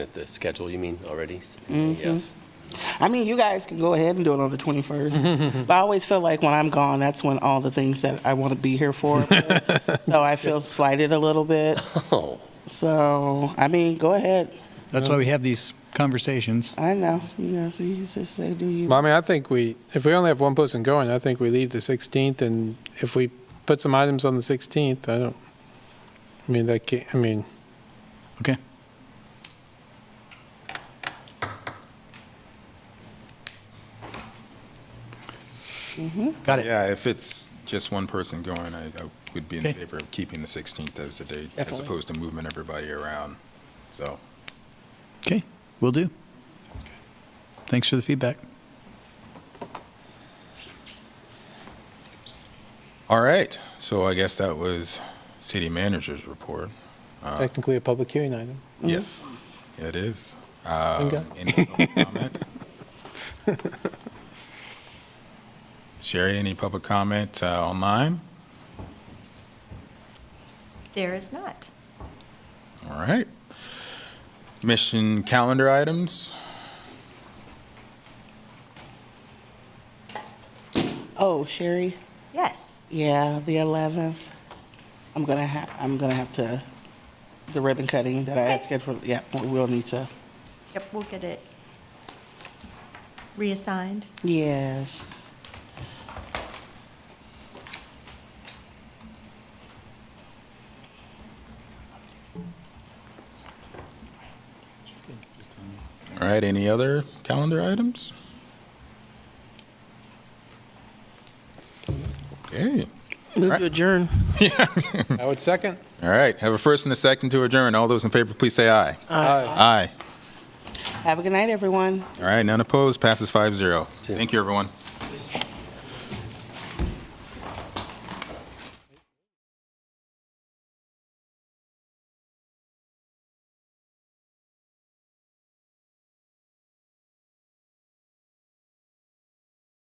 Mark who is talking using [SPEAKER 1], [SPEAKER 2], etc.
[SPEAKER 1] At the schedule, you mean, already? S- Yes.
[SPEAKER 2] I mean, you guys can go ahead and do it on the 21st. But I always feel like when I'm gone, that's when all the things that I want to be here for. So I feel slighted a little bit.
[SPEAKER 1] Oh,
[SPEAKER 2] So, I mean, go ahead.
[SPEAKER 3] That's why we have these conversations.
[SPEAKER 2] I know, you know, so you just say, do you?
[SPEAKER 4] Well, I mean, I think we, if we only have one person going, I think we leave the 16th, and if we put some items on the 16th, I don't, I mean, that, ca- I mean,
[SPEAKER 3] Okay. Got it.
[SPEAKER 5] Yeah, if it's just one person going, I I would be in
[SPEAKER 3] Okay.
[SPEAKER 5] favor of keeping the 16th as the date, as
[SPEAKER 2] Definitely.
[SPEAKER 5] opposed to moving everybody around. So,
[SPEAKER 3] Okay, we will do. Thanks for the feedback.
[SPEAKER 5] all right, so I guess that was city manager's report.
[SPEAKER 4] technically a public hearing item.
[SPEAKER 3] Mm-hmm.
[SPEAKER 5] Yes, it is.
[SPEAKER 4] Okay.
[SPEAKER 5] Um, any public comment? Sherry, any public comment uh, online?
[SPEAKER 6] There is not.
[SPEAKER 5] All right. Mission calendar items?
[SPEAKER 2] Oh, Sherry,
[SPEAKER 6] Yes.
[SPEAKER 2] yeah, the 11th. I'm gonna have, I'm gonna have to, the ribbon cutting that I had
[SPEAKER 6] Okay.
[SPEAKER 2] scheduled, yeah, we will need to.
[SPEAKER 6] Yep, we'll get it reassigned.
[SPEAKER 2] Yes.
[SPEAKER 5] All right, any other calendar items? Okay.
[SPEAKER 2] Move to adjourn.
[SPEAKER 4] I would second.
[SPEAKER 5] All right, have a first and a second to adjourn. All those in favor, please say aye. Aye.
[SPEAKER 2] Have a good night, everyone.
[SPEAKER 5] All right, none opposed, passes 5-0. Thank you, everyone.